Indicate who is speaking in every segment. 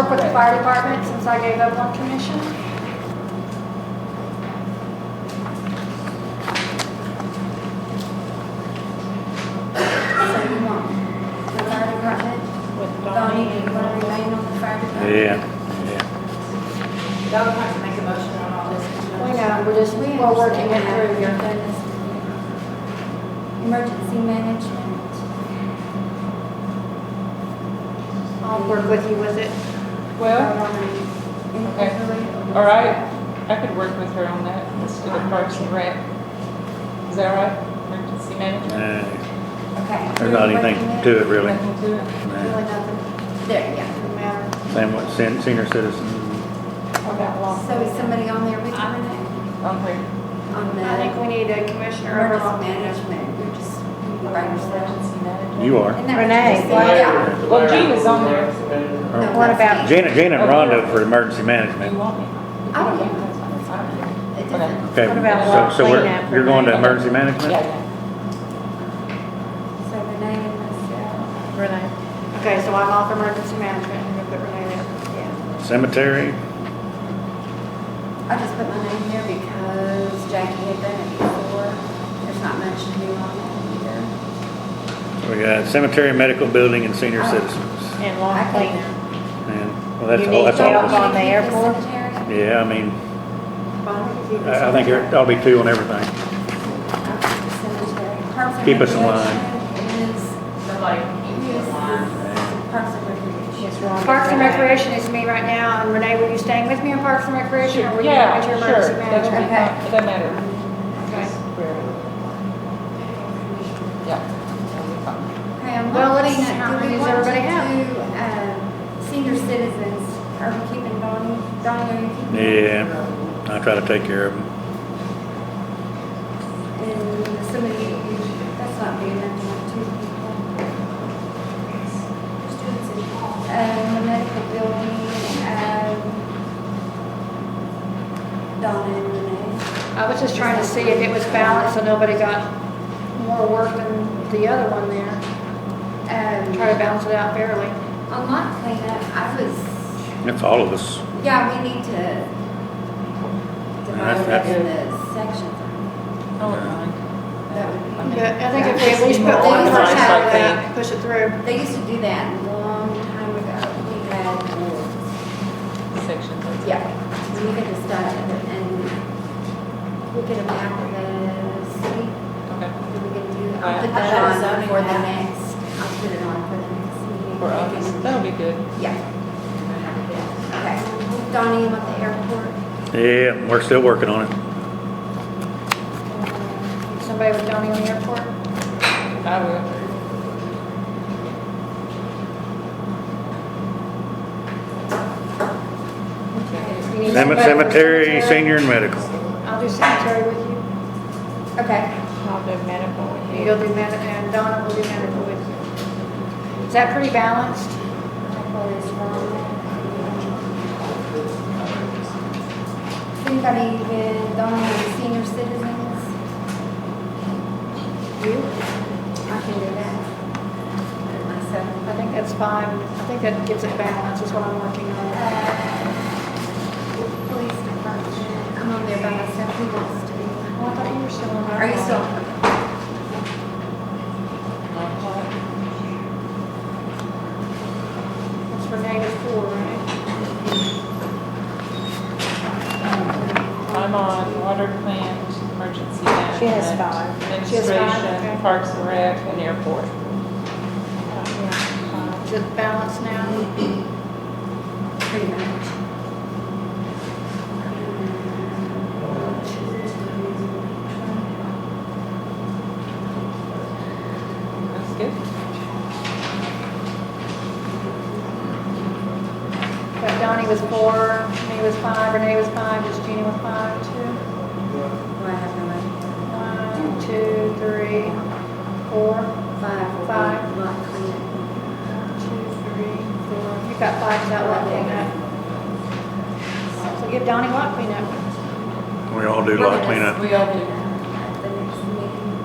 Speaker 1: for the fire department since I gave up one commission? So you want the fire department,
Speaker 2: With
Speaker 1: Donnie,
Speaker 2: Donnie
Speaker 1: do you
Speaker 2: and
Speaker 1: want to
Speaker 2: Lori.
Speaker 1: remain on the fire department?
Speaker 3: Yeah, yeah.
Speaker 2: Y'all don't have to make a motion on all this. because
Speaker 1: We know, we're just, we're working it through here.
Speaker 4: Emergency management.
Speaker 1: I'll work with you with it.
Speaker 5: Well,
Speaker 4: Okay.
Speaker 5: all right, I could work with her on that, let's do the parks and rec. Is that all right? Emergency management?
Speaker 3: Uh,
Speaker 4: Okay.
Speaker 3: There's not anything to it really.
Speaker 5: Nothing to it.
Speaker 3: Nah.
Speaker 1: Really nothing. There, yeah.
Speaker 3: Same with sen- senior citizen,
Speaker 5: What about law?
Speaker 4: So is somebody on there with you or not?
Speaker 5: On her
Speaker 4: On
Speaker 1: I think
Speaker 4: the
Speaker 1: we need a commissioner over
Speaker 4: emergency
Speaker 1: all
Speaker 4: management, you're just, you by yourself.
Speaker 5: emergency management.
Speaker 3: you are.
Speaker 4: And that-
Speaker 2: Renee.
Speaker 4: Yeah.
Speaker 5: Well, Gina's on there.
Speaker 4: No,
Speaker 2: What
Speaker 4: that's
Speaker 2: about-
Speaker 4: me.
Speaker 3: Janet, Janet
Speaker 5: Oh,
Speaker 3: Rondo
Speaker 5: yeah.
Speaker 3: for emergency
Speaker 5: You
Speaker 3: management.
Speaker 5: want me?
Speaker 4: I don't care.
Speaker 5: care.
Speaker 4: It doesn't.
Speaker 3: Okay,
Speaker 2: What about
Speaker 3: so, so we're,
Speaker 2: cleanup for
Speaker 3: you're going to
Speaker 2: Renee?
Speaker 3: emergency
Speaker 5: Yeah,
Speaker 3: management?
Speaker 5: yeah.
Speaker 4: So Renee and myself.
Speaker 2: Renee.
Speaker 1: Okay, so I'm off emergency management, and we put Renee there.
Speaker 4: Yeah.
Speaker 3: Cemetery,
Speaker 4: I just put my name here because Jackie had done it before. There's not much to do on that
Speaker 3: we got cemetery, medical building and senior
Speaker 4: Oh.
Speaker 3: citizens.
Speaker 2: And
Speaker 4: either.
Speaker 2: lawn
Speaker 4: I think-
Speaker 2: cleaner.
Speaker 3: And, well, that's
Speaker 2: You
Speaker 3: all,
Speaker 2: need
Speaker 3: that's all
Speaker 2: help
Speaker 3: of us.
Speaker 2: on the airport?
Speaker 4: Cemetery?
Speaker 3: Yeah, I mean,
Speaker 1: Bonnie,
Speaker 3: I, I think there ought to be two on everything.
Speaker 4: Cemetery.
Speaker 3: Keep us in line.
Speaker 4: Is
Speaker 2: For like,
Speaker 4: Yes. Parks and
Speaker 2: It's
Speaker 4: Recreation.
Speaker 2: wrong.
Speaker 1: Parks and Recreation is me right now, and Renee, were you staying with me on Parks and Recreation, or were you
Speaker 5: Yeah,
Speaker 1: at your
Speaker 5: sure.
Speaker 1: emergency
Speaker 5: That would
Speaker 1: management?
Speaker 5: be
Speaker 4: Okay.
Speaker 5: fine. It doesn't matter. Just where- Yeah. that'll be fine.
Speaker 4: Okay, I'm
Speaker 1: Well, let's
Speaker 4: looking
Speaker 1: see how
Speaker 4: at, do
Speaker 1: many
Speaker 4: we
Speaker 1: is
Speaker 4: want to
Speaker 1: everybody
Speaker 4: do, um, senior citizens? Are we keeping Donnie, Donnie, are you keeping?
Speaker 3: Yeah, I try to take care of them.
Speaker 4: And somebody, that's not big enough to have two people. Um, the medical building, um, Donna and Renee.
Speaker 1: I was just trying to see if it was balanced, so nobody got more work than the other one there.
Speaker 4: Um,
Speaker 1: Try to balance it out fairly.
Speaker 4: On lot cleanup, I was
Speaker 3: That's all of us.
Speaker 4: Yeah, we need to divide that
Speaker 3: that's-
Speaker 4: into sections.
Speaker 5: I wouldn't mind.
Speaker 4: That would
Speaker 5: I
Speaker 4: be-
Speaker 5: mean,
Speaker 1: But I think if we at least put
Speaker 5: more
Speaker 1: one person
Speaker 5: organized
Speaker 1: out of
Speaker 5: like that.
Speaker 1: that, push it through.
Speaker 4: They used to do that a long time ago. We had rules.
Speaker 5: sections. that's-
Speaker 4: Yeah. We could just start at the- and we could map of the city.
Speaker 5: Okay.
Speaker 4: We could do,
Speaker 5: Right.
Speaker 4: I'll put
Speaker 2: How about
Speaker 4: that on
Speaker 2: zoning
Speaker 4: for the
Speaker 2: map?
Speaker 4: next, I'll put it on for the next meeting.
Speaker 5: For us, that'll be good.
Speaker 4: Yeah. Okay. Donnie, you want the airport?
Speaker 3: Yeah, we're still working on it.
Speaker 1: Somebody with Donnie on the airport?
Speaker 5: I will.
Speaker 1: You need
Speaker 3: Cem-
Speaker 1: somebody for
Speaker 3: Cemetery, senior and medical.
Speaker 1: I'll do cemetery with you.
Speaker 4: Okay.
Speaker 2: I'll do medical with you.
Speaker 1: You'll do medical, and Donna will do medical with you. Is that pretty balanced?
Speaker 4: Anybody with only senior citizens? You? I can do that. Myself.
Speaker 1: I think that's fine. I think that gives it balance, is what I'm working on.
Speaker 4: Uh, Police department, I'm on there by myself, who wants to be?
Speaker 1: Well, I thought you were still on that
Speaker 4: Are you
Speaker 1: one.
Speaker 4: still?
Speaker 1: That's for negative four, right?
Speaker 5: I'm on water plant, emergency management.
Speaker 2: She has five.
Speaker 1: She has five,
Speaker 5: Administration,
Speaker 1: okay.
Speaker 5: parks and rec, and airport.
Speaker 1: Is it balanced now?
Speaker 4: Pretty much.
Speaker 5: That's good.
Speaker 1: But Donnie was four, me was five, Renee was five, just Jeannie was five, two,
Speaker 4: Well, I have no idea.
Speaker 1: one, two, three, four.
Speaker 4: Five. will be
Speaker 1: Five.
Speaker 4: Lot cleanup.
Speaker 1: One, two, three, four. You've got five, that one, cleanup. So give Donnie lot cleanup.
Speaker 3: We all do a lot of cleanup.
Speaker 5: We all do.
Speaker 4: At the next meeting.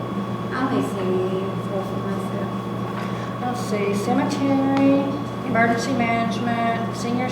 Speaker 4: I only see four for myself.
Speaker 1: Let's see, cemetery, emergency management, senior